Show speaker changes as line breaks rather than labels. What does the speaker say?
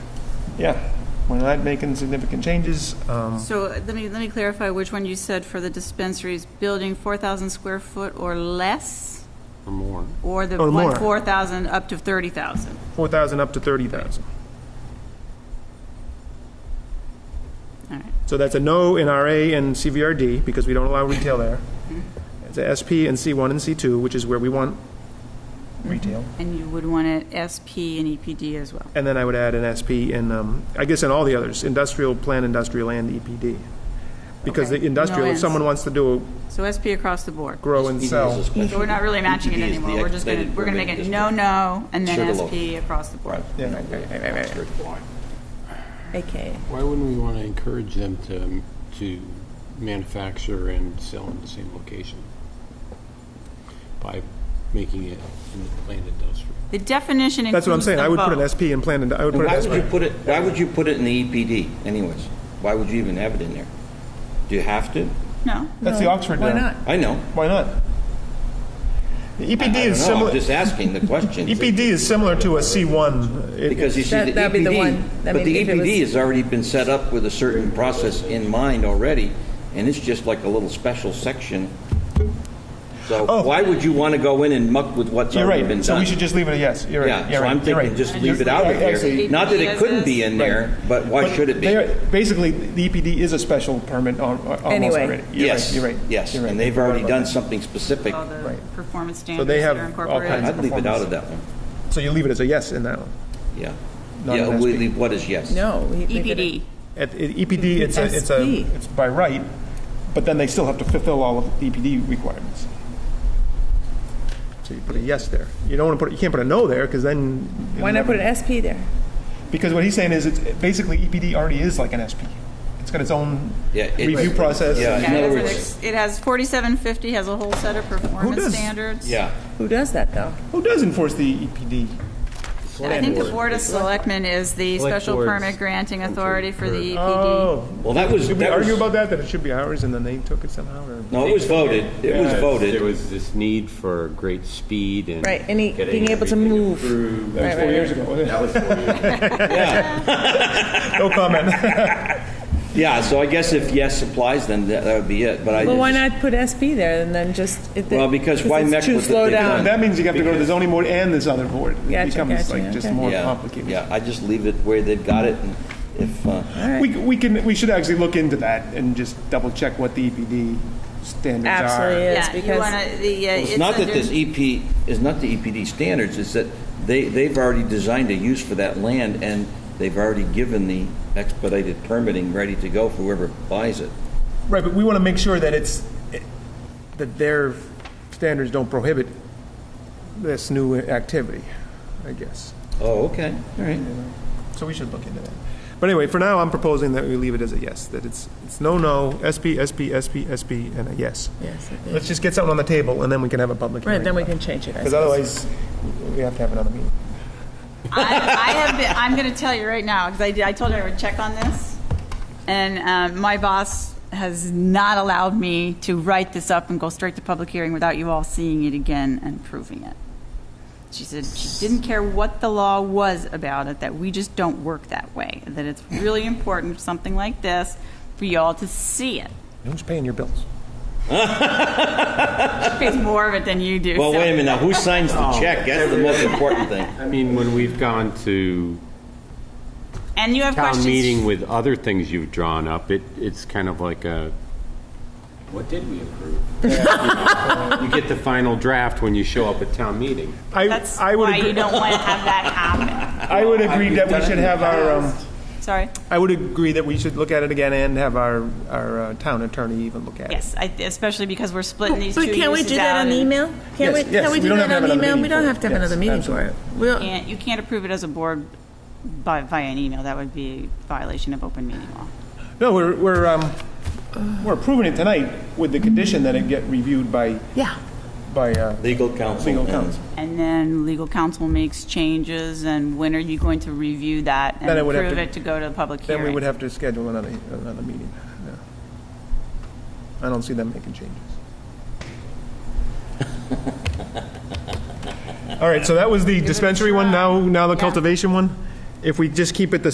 Yeah, we're not making significant changes. Um,
So uh, let me, let me clarify which one you said for the dispensaries, building 4,000 square foot or less,
or more.
or the
Or more.
one 4,000 up to 30,000?
4,000 up to 30,000.
All right.
So that's a no in RA and CVRD, because we don't allow retail there. It's a SP and C1 and C2, which is where we want retail.
And you would want it SP and EPD as well?
And then I would add an SP in, um, I guess in all the others, industrial, plan, industrial, and EPD. Because
Okay.
the industrial,
No
if
ends.
someone wants to do,
So SP across the board?
grow and
E
sell,
So we're not really matching
E
it
EPD is the
anymore, we're just going to,
expedited
we're going to make
permitted
it no,
district.
no, and then
Sugarloaf.
SP across the board?
yeah.
AKA.
Why wouldn't we want to encourage them to, um, to manufacture and sell in the same location? By making it in the planned industrial.
The definition includes
that's what I'm saying, I
them
would put an
both.
SP in plan, and I would put
Why would you
an SP.
put it, why would you put it in the EPD anyways? Why would you even have it in there? Do you have to?
No,
That's the Oxford
Why
now.
not?
I know.
Why not? The
I
EPD
don't
E is
know. I'm
similar,
just asking the question.
EPD E is similar to a C1. It-
Because you see,
That-
the
that'd be the
EPD,
one. I
but
mean,
the
if it was-
EPD has already been set up with a certain process in mind already, and it's just like a little special section.
Oh.
So why would you want to go in and muck with what's
You're
already been
right,
done?
so we should just leave it a yes, you're right,
Yeah,
you're
so I'm
right, you're
thinking
right.
just leave it out of
Actually-
here. Not that it couldn't be in there, but why
But
should it be?
they are- Basically, the EPD is a special permit al- almost
Anyway.
already. You're right,
Yes,
You're right.
yes,
you're right.
and they've already done something specific.
all the
Right.
performance
So
standards
they
that
have
are
all kinds
incorporated.
of
I'd leave it out of
performance.
that one,
So you leave it as a yes in that one.
yeah.
Not
Yeah,
an
we
SP.
leave what is yes.
No. we- we did it.
EPD,
At at EPD, it's a, it's a,
SP.
it's by right, but then they still have to fulfill all of the EPD requirements. So you put a yes there. You don't want to put, you can't put a no there, because then. it'll
Why not
never-
put an SP there?
Because what he's saying is, it's, basically, EPD already is like an SP. It's got its own
Yeah, it's-
review process.
Yeah,
Yeah, in other
it's an
words,
ex- it has 4750, has a whole set of
does-
performance standards.
yeah.
Who does that, though?
Who does enforce the E EPD?
I think the Board of Selectmen is the
Select
special
boards.
permit granting authority for the E EPD.
Oh,
Well, that was,
did we
that
argue
was,
about that, that it should be ours, and then they took it somehow, or?
no, it was voted, it was
There
voted.
was this need for great speed and.
Right, and he-
getting
being able to
everything
move.
approved.
Right, right, right.
ago.
Yeah,
No comment.
yeah, so I guess if yes applies, then that that would be it, but I
Well, why
just,
not put SP there and then just? it-
Well, because why
it's
mess
too
with it?
slow
They've
down.
That means you have to go to the zoning board and this other board. It
Gotcha,
becomes
gotcha,
like just
okay.
more
yeah,
complicated.
yeah, I just leave it where they've got it, and if, uh,
We, we can, we should actually look into that and just double check what the EPD standards are.
Absolutely is
Yeah, you
because
wanna, the, uh,
Well, It's
it's
not that
under-
this EP, it's not the EPD standards, it's that they, they've already designed a use for that land, and they've already given the expedited permitting ready to go for whoever buys it.
Right, but we want to make sure that it's, that their standards don't prohibit this new activity, I guess.
Oh, okay, all right.
So we should look into that. But anyway, for now, I'm proposing that we leave it as a yes, that it's, it's no, no, SP, SP, SP, SP, and a yes.
Yes, I think.
Let's just get something on the table, and then we can have a public hearing.
Right, then we can change it. I
Because
suppose.
otherwise, we have to have another meeting.
I, I have been, I'm going to tell you right now, because I, did- I told her I would check on this, and um, my boss has not allowed me to write this up and go straight to public hearing without you all seeing it again and proving it. She said she didn't care what the law was about it, that we just don't work that way, that it's really important, something like this, for you all to see it.
Who's paying your bills?
She pays more of it than you do.
Well,
so-
wait a minute, now who signs the check? That's the most important thing.
I mean, when we've gone to
And you have
town
questions.
meeting with other things you've drawn up, it, it's kind of like a, what did we approve? You get the final draft when you show up at town meeting.
I,
That's
I would,
why
agree-
you don't want to have that happen.
I would agree that we should have our, um,
Sorry.
I would agree that we should look at it again and have our, our uh, town attorney even look at it.
Yes, I, especially because we're splitting
Oh,
these two
But can't we
uses
do that
out
on
and-
email? Can't we,
Yes, yes,
can we
we
do
don't have
that
to have
on
another
email?
meeting
We
for
don't
it.
have to have
Yes,
another meeting for it. We'll,
Can't, you can't approve it as a board by, via an email. That would be a violation of open meeting law.
No, we're, we're, um, we're approving it tonight with the condition that it get reviewed by,
yeah.
by, uh,
Legal counsel.
legal
and-
counsel.
And then legal counsel makes changes, and when are you going to review that and
Then I would have
approve
to-
it to go to the public hearing?
Then we would have to schedule another, another meeting. yeah. I don't see them making changes. All right, so that was the dispensary one, now, now the cultivation one. If we just keep it the